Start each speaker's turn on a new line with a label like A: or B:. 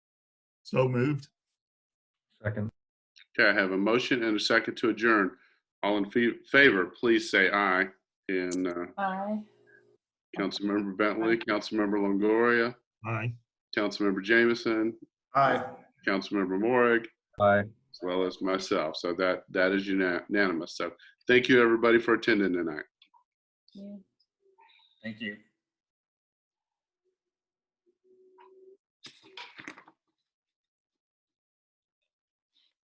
A: So moved.
B: Second.
C: Okay, I have a motion and a second to adjourn. All in fe- favor, please say aye. And uh,
D: Aye.
C: Councilmember Bentley, Councilmember Longoria,
A: Aye.
C: Councilmember Jameson,
E: Aye.
C: Councilmember Morag,
B: Aye.
C: as well as myself. So that, that is una- unanimous. So thank you, everybody, for attending tonight.
D: You-
E: Thank you.